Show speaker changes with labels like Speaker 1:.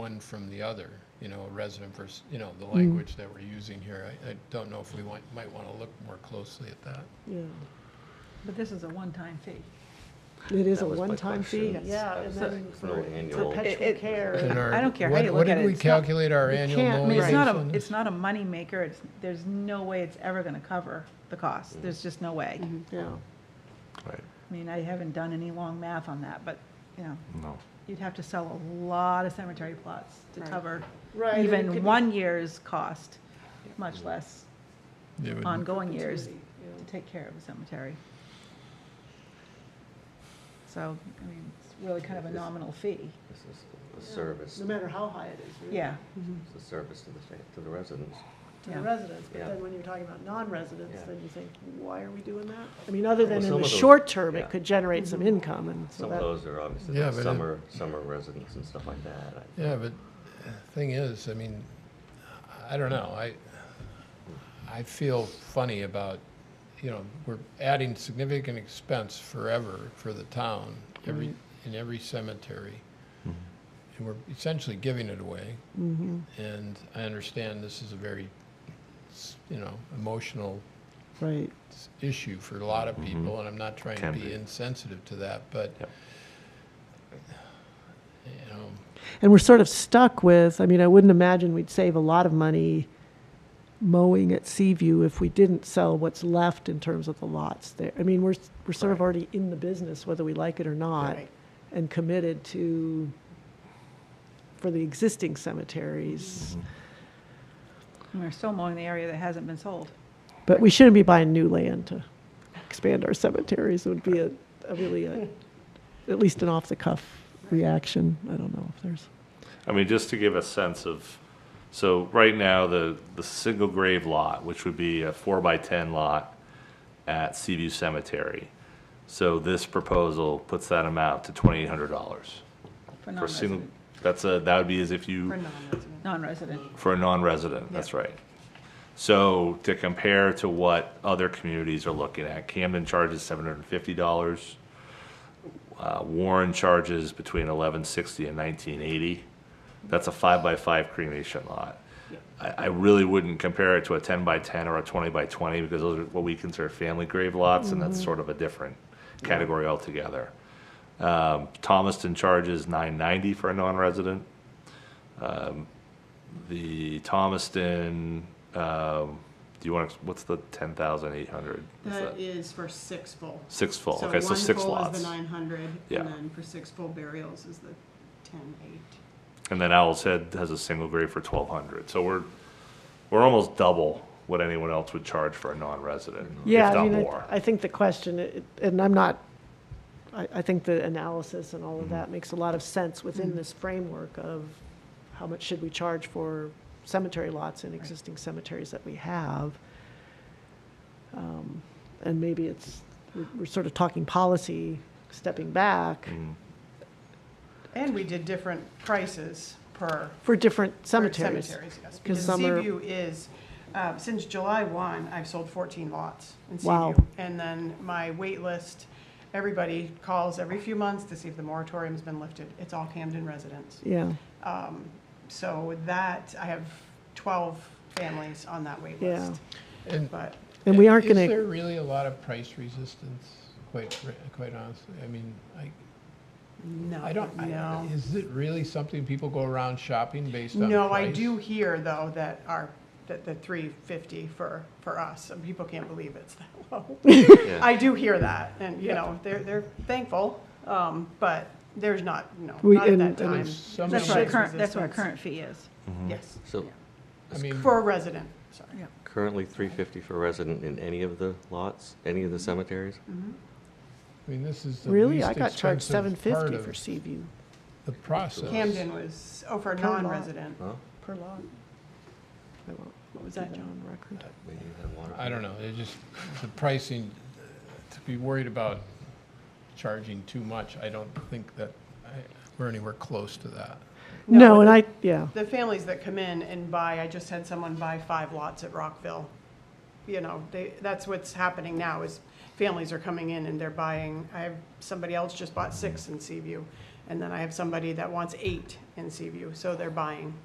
Speaker 1: one from the other, you know, a resident versus, you know, the language that we're using here. I, I don't know if we want, might want to look more closely at that.
Speaker 2: Yeah,
Speaker 3: But this is a one-time fee.
Speaker 2: it is
Speaker 4: That
Speaker 2: a
Speaker 4: was my
Speaker 2: one-time fee.
Speaker 4: question.
Speaker 3: Yeah,
Speaker 4: That's-
Speaker 3: and then
Speaker 4: that's No annual.
Speaker 3: Perpetual
Speaker 5: It- it-
Speaker 1: And
Speaker 3: care.
Speaker 1: our-
Speaker 5: I don't care how
Speaker 1: what-
Speaker 5: you
Speaker 1: What
Speaker 5: look at
Speaker 1: did
Speaker 5: it,
Speaker 1: we
Speaker 5: it's not-
Speaker 1: calculate our
Speaker 2: You
Speaker 1: annual
Speaker 2: can't-
Speaker 3: I mean,
Speaker 1: millage
Speaker 3: it's not
Speaker 1: on
Speaker 3: a,
Speaker 1: this?
Speaker 3: it's not a moneymaker. It's, there's no way it's ever gonna cover the cost. There's just no way.
Speaker 2: Yeah,
Speaker 4: Right,
Speaker 3: I mean, I haven't done any long math on that, but, you know,
Speaker 4: no.
Speaker 3: you'd have to sell a lot of cemetery plots to
Speaker 5: Right.
Speaker 3: cover
Speaker 2: Right, and it could be-
Speaker 3: even one year's cost, much less
Speaker 1: It would-
Speaker 3: ongoing years to take care of a cemetery. So, I mean, it's really kind of a
Speaker 4: This-
Speaker 3: nominal fee.
Speaker 4: This is a service,
Speaker 2: no matter how high it is, really.
Speaker 3: Yeah,
Speaker 4: it's a service to the, fa- to the residents.
Speaker 2: To the
Speaker 3: Yeah.
Speaker 2: residents, but
Speaker 4: Yeah.
Speaker 2: then when you're talking about non-residents,
Speaker 4: Yeah.
Speaker 2: then you think, why are we doing that? Mm-hmm. I mean, other than
Speaker 4: Well,
Speaker 2: in
Speaker 4: some
Speaker 2: the
Speaker 4: of those-
Speaker 2: short term,
Speaker 4: yeah.
Speaker 2: it could generate some income and so
Speaker 4: Some of
Speaker 2: that.
Speaker 4: those are obviously
Speaker 1: Yeah,
Speaker 4: like
Speaker 1: but it-
Speaker 4: summer, summer residents and stuff like that. I-
Speaker 1: Yeah, but thing is, I mean, I don't know, I, I feel funny about, you know, we're adding significant expense forever for the town, every, in every cemetery.
Speaker 4: Mm-hmm.
Speaker 1: And we're essentially giving it away.
Speaker 2: Mm-hmm.
Speaker 1: And I understand this is a very, s- you know, emotional
Speaker 2: Right.
Speaker 1: s- issue for a lot of people, and I'm not trying to
Speaker 4: Mm-hmm. Can
Speaker 1: be
Speaker 4: be.
Speaker 1: insensitive to that, but,
Speaker 4: Yep.
Speaker 1: you know,
Speaker 2: And we're sort of stuck with, I mean, I wouldn't imagine we'd save a lot of money mowing at Seaview if we didn't sell what's left in terms of the lots there. I mean, we're, we're sort of
Speaker 4: Right.
Speaker 2: already in the business, whether we like it or not,
Speaker 5: Right.
Speaker 2: and committed to, for the existing
Speaker 4: Mm-hmm.
Speaker 2: cemeteries.
Speaker 3: and we're still mowing the area that hasn't been sold.
Speaker 2: But we shouldn't be buying new land to expand our cemeteries, It would be a, a really, a- at least an off-the-cuff reaction. I don't know if there's.
Speaker 6: I mean, just to give a sense of, so right now, the, the single grave lot, which would be a four by ten lot at Seaview Cemetery. So this proposal puts that amount to twenty-eight hundred dollars. For a single,
Speaker 3: non-resident.
Speaker 6: that's a, that would be as if
Speaker 5: For
Speaker 6: you,
Speaker 5: non-resident.
Speaker 3: Non-resident.
Speaker 6: for a non-resident, that's right. So to compare to what other communities are looking at, Camden charges seven hundred and fifty dollars. Uh, Warren charges between eleven sixty and nineteen eighty. That's a five by five cremation lot. I, I really wouldn't compare it to a ten by ten or a twenty by twenty because those are what we consider family grave lots, and
Speaker 5: Mm-hmm.
Speaker 6: that's sort of a different category altogether. Um, Thomaston charges nine ninety for a non-resident. Um, The Thomaston, um, do you want to, what's the ten thousand eight hundred?
Speaker 5: That is for six full.
Speaker 6: Six full, okay, so
Speaker 5: Uh,
Speaker 6: six
Speaker 5: one full
Speaker 6: lots.
Speaker 5: is the nine hundred,
Speaker 6: Yeah.
Speaker 5: and then for six full burials is the ten eight.
Speaker 6: And then Owl's Head has a single grave for twelve hundred, so we're, we're almost double what anyone else would charge for a non-resident,
Speaker 2: Yeah,
Speaker 6: if
Speaker 2: I
Speaker 6: not
Speaker 2: mean,
Speaker 6: more.
Speaker 2: I, I think the question, it- and I'm not, I, I think the analysis and all
Speaker 6: Mm-hmm.
Speaker 2: of that makes a lot of sense within this framework of how much should we charge for cemetery lots in existing cemeteries that we have? Um, And maybe it's, we're, we're sort of talking policy, stepping back
Speaker 6: Mm.
Speaker 5: And we did different prices per
Speaker 2: for different
Speaker 5: for
Speaker 2: cemeteries.
Speaker 5: yes.
Speaker 2: 'Cause
Speaker 5: Because
Speaker 2: some are-
Speaker 5: Seaview is, uh, since July 1, I've sold 14 lots in
Speaker 2: Wow.
Speaker 5: Seaview. And then my wait list, everybody calls every few months to see if the moratorium's been lifted. It's all Camden residents. Um,
Speaker 2: Yeah,
Speaker 5: So with that, I have 12 families on that wait
Speaker 2: Yeah.
Speaker 5: list.
Speaker 1: and
Speaker 5: But
Speaker 2: and we aren't
Speaker 1: Is there
Speaker 2: gonna,
Speaker 1: really a lot of price resistance, quite, fr- quite honestly? I mean, I,
Speaker 5: no,
Speaker 1: I don't, I-
Speaker 5: no.
Speaker 1: is it really something people go around shopping based on price?
Speaker 5: No, I do hear though that our, that the 350 for, for us, and people can't believe it's that low. I do hear that, and, you know, they're, they're thankful, um, but there's not, no,
Speaker 2: We-
Speaker 5: not at
Speaker 2: and-
Speaker 5: that
Speaker 2: and
Speaker 5: time.
Speaker 1: it's some
Speaker 5: There's
Speaker 3: That's what our
Speaker 1: Right.
Speaker 5: price
Speaker 3: current, that's what our
Speaker 5: resistance.
Speaker 3: current fee is.
Speaker 5: Yes,
Speaker 4: So
Speaker 1: I mean,
Speaker 5: for a resident, sorry.
Speaker 3: Yeah.
Speaker 4: currently three fifty for resident in any of the lots, any of the cemeteries?
Speaker 1: I mean, this is the
Speaker 2: really?
Speaker 1: least
Speaker 2: I got charged seven
Speaker 1: expensive part
Speaker 2: fifty for
Speaker 1: of
Speaker 2: Seaview
Speaker 1: the process.
Speaker 5: Camden was, oh, for a
Speaker 2: Per lot.
Speaker 5: non-resident.
Speaker 4: Well,
Speaker 2: per lot. I won't
Speaker 5: What was that,
Speaker 2: do
Speaker 5: John?
Speaker 2: on record.
Speaker 4: we have one.
Speaker 1: I don't know, it just, the pricing, to be worried about charging too much, I don't think that, I- we're anywhere close to that.
Speaker 2: No,
Speaker 5: No,
Speaker 2: and
Speaker 5: it-
Speaker 2: I, yeah.
Speaker 5: The families that come in and buy, I just had someone buy five lots at Rockville. You know, they, that's what's happening now is families are coming in and they're buying, I have, somebody else just bought six in Seaview And then I have somebody that wants eight in Seaview, so they're buying